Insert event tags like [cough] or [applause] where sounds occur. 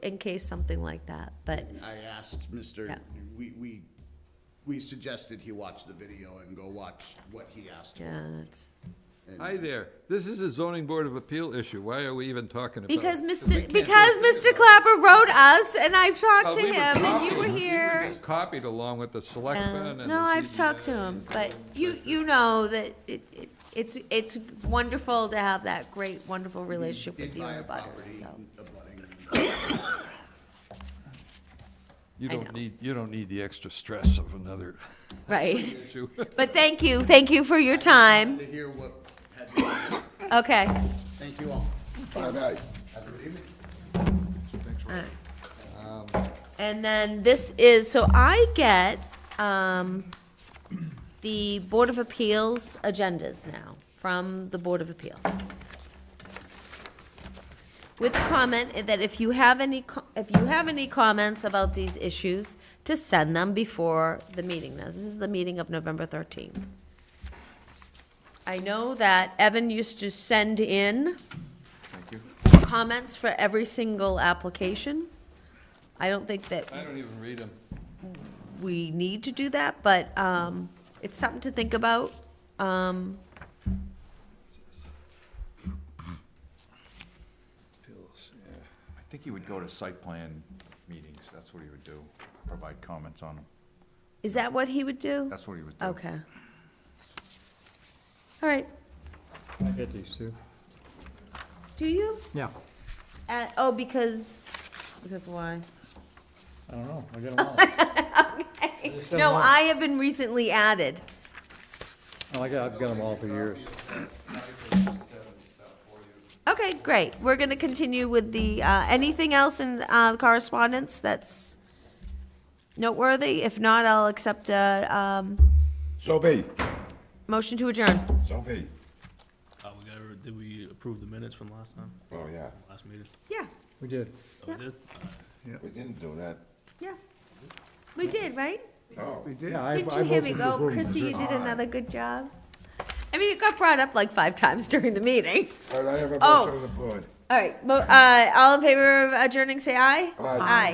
in case something like that, but, I asked Mr., Yeah. we, we, we suggested he watch the video and go watch what he asked for. yeah, it's. Hi there, this is a zoning board of appeal issue, why are we even talking about it? Because we Mr., can't do because Mr. Clapper wrote us, and I've Well, talked to we were him, and copied. you were We here. just Copied along with the Yeah. selectmen and the No, I've talked to CBA. him, but you, you know that it, it- it's, it's wonderful to have that great, wonderful relationship Did with you buy a and the butters, property so. abutting- You I don't know. need, you don't need the extra stress of another [laughs] Right, issue. but thank you, thank you for your time, uh, To hear what, had- okay. thank you all. Bye-bye. Have a good evening. And then this is, so I get, um, the Board of Appeals agendas now, from the Board of Appeals. With the comment that if you have any, co- if you have any comments about these issues, to send them before the meeting. Now, this is the meeting of November thirteenth. I know that Evan used to send in comments for every single application. I don't think that I don't even read them. we need to do that, but um, it's something to think about. Um, I think he would go to site plan meetings, that's what he would do, provide comments on them, Is that what he would do? that's what he would do. Okay. All right, I get these too. do you? Yeah. Uh, Oh, because, because why? I don't know, [laughs] I get them all. don't No, know. I have been recently added. Oh, I got, I've got them all for years. Okay, great. We're going to continue with the, uh, anything else in uh, correspondence that's noteworthy? If not, I'll accept a um, So be, motion to adjourn. so be. Uh, we got, did we approve the minutes from last time, Oh, yeah. last meeting? Yeah, We did. Oh, we did? We didn't do that. yeah. We did, right? No. Yeah, I- Didn't I you hear voted me to go, approve. Chrissy, you did another good job? I mean, it got brought up like five times [laughs] during the meeting. All right, I have a Oh. motion on the board. All right, mo- uh, all in favor of adjourning, say aye? Aye.